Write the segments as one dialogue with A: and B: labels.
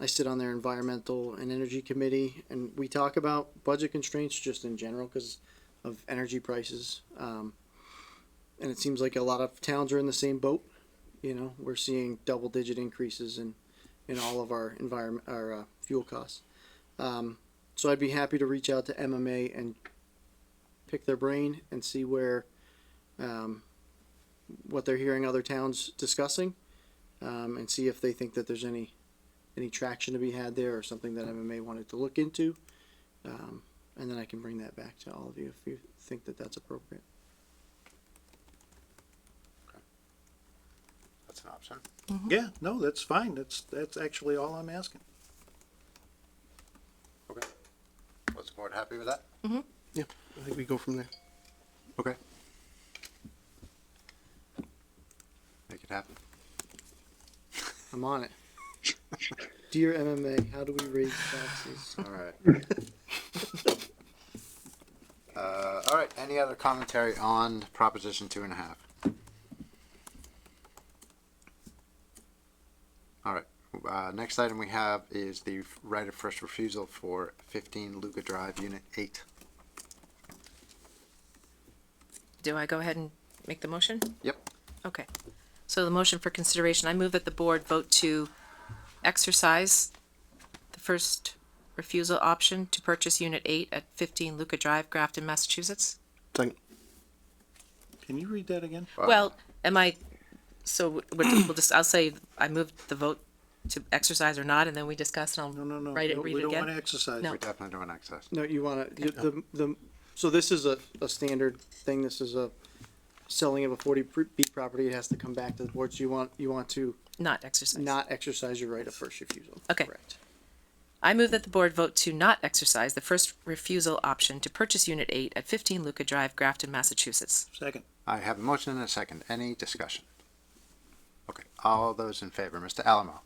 A: I sit on their environmental and energy committee, and we talk about budget constraints just in general because of energy prices. Um, and it seems like a lot of towns are in the same boat. You know, we're seeing double-digit increases in in all of our environment, our uh, fuel costs. Um, so I'd be happy to reach out to MMA and pick their brain and see where um, what they're hearing other towns discussing, um, and see if they think that there's any any traction to be had there or something that MMA wanted to look into. Um, and then I can bring that back to all of you if you think that that's appropriate.
B: That's an option.
C: Yeah, no, that's fine. That's, that's actually all I'm asking.
B: Okay. Was the board happy with that?
D: Mm-hmm.
E: I think we go from there.
B: Okay. Make it happen.
A: I'm on it. Dear MMA, how do we raise taxes?
B: All right. Uh, all right, any other commentary on Proposition two and a half? All right, uh, next item we have is the right of first refusal for fifteen Luca Drive, Unit eight.
D: Do I go ahead and make the motion?
B: Yep.
D: Okay. So the motion for consideration, I move that the board vote to exercise the first refusal option to purchase unit eight at fifteen Luca Drive, Grafton, Massachusetts.
E: Second.
C: Can you read that again?
B: Uh,
D: Well, am I, so we'll we'll just, I'll say, I moved the vote to exercise or not, and then we discuss and
C: No,
D: I'll
C: no, no.
D: write it,
C: no,
D: read
C: We
D: it
C: don't want to
D: again.
C: exercise.
D: No.
B: We're definitely doing access.
A: No, you want to, the, the, so this is a, a standard thing. This is a selling of a forty B property. It has to come back to the board. So you want, you want to
D: Not exercise.
A: not exercise your right of first refusal.
D: Okay.
A: Correct.
D: I move that the board vote to not exercise the first refusal option to purchase unit eight at fifteen Luca Drive, Grafton, Massachusetts.
C: Second.
B: I have a motion and a second. Any discussion? Okay, all those in favor, Mr. Alamo,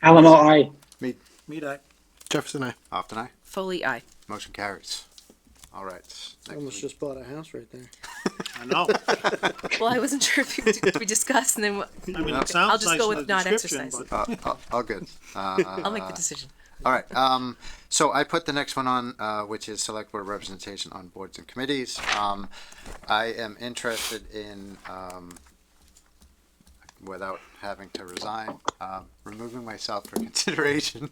F: Alamo, aye.
C: Mead eye.
E: Jefferson, I.
B: Often I.
D: Foley, aye.
B: Motion carries. All right. next
A: Almost
B: we-
A: just bought a house right there.
C: I know.
D: Well, I wasn't sure if you- did we discussed, and then
C: I mean,
B: I'll
C: it sounds
D: just
C: nice
D: go
C: in the
D: with not
C: description,
D: exercise.
C: but
B: Uh, all- all good.
D: I'll make the decision.
B: All right. Um, so I put the next one on, uh, which is select board representation on boards and committees. Um, I am interested in, um, without having to resign, um, removing myself for consideration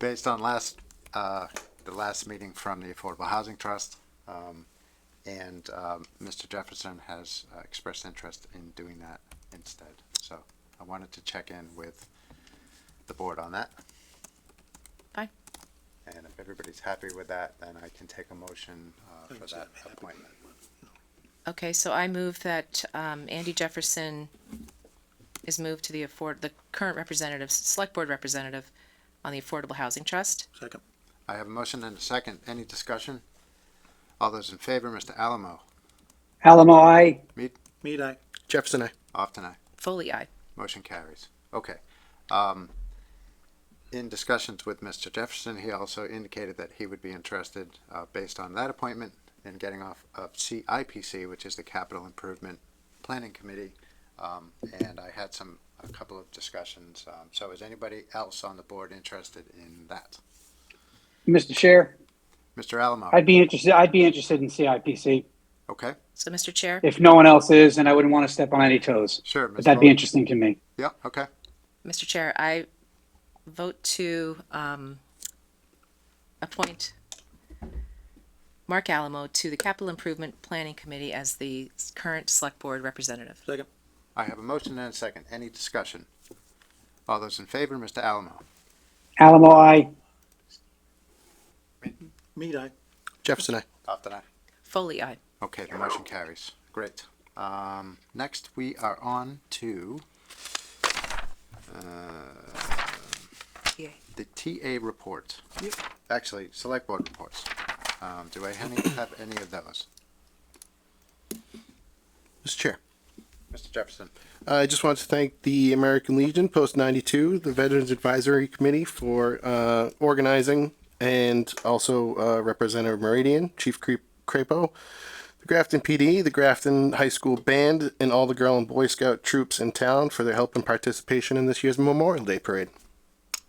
B: based on last, uh, the last meeting from the Affordable Housing Trust. Um, and, um, Mr. Jefferson has uh, expressed interest in doing that instead. So I wanted to check in with the board on that. And if everybody's happy with that, then I can take a motion uh, for that appointment.
D: Okay, so I move that um, Andy Jefferson is moved to the afford, the current representative, select board representative on the Affordable Housing Trust.
C: second.
B: I have a motion and a second. Any discussion? All those in favor, Mr. Alamo,
F: Alamo, aye.
C: Mead eye.
E: Jefferson, I.
B: off tonight.
D: Foley, aye.
B: Motion carries. Okay. Um, in discussions with Mr. Jefferson, he also indicated that he would be interested, uh, based on that appointment, in getting off of CIPC, which is the Capital Improvement Planning Committee. Um, and I had some, a couple of discussions. Um, so is anybody else on the board interested in that?
F: Mr. Chair,
B: Mr. Alamo?
F: I'd be interested, I'd be interested in CIPC
B: Okay,
D: So, Mr. Chair,
F: if no one else is, and I wouldn't want to step on any toes.
B: sure.
F: But
B: Ms.
F: that'd be
B: Bowles.
F: interesting to me.
B: Yeah, okay.
D: Mr. Chair, I vote to um, appoint Mark Alamo to the Capital Improvement Planning Committee as the current select board representative.
C: Second.
B: I have a motion and a second. Any discussion? All those in favor, Mr. Alamo?
F: Alamo, aye.
C: Mead eye.
E: Jefferson, I.
B: After that.
D: Foley, aye.
B: Okay, the motion carries. Great. Um, next, we are on to uh,
D: Yay.
B: the TA report. Actually, select board reports. Um, do I any- have any of those?
E: Mr. Chair.
B: Mr. Jefferson?
E: I just want to thank the American Legion Post 92, the Veterans Advisory Committee for uh, organizing, and also uh, Representative Meridian, Chief Cre- Crapo, the Grafton PD, the Grafton High School Band, and all the Girl and Boy Scout troops in town for their help and participation in this year's Memorial Day Parade.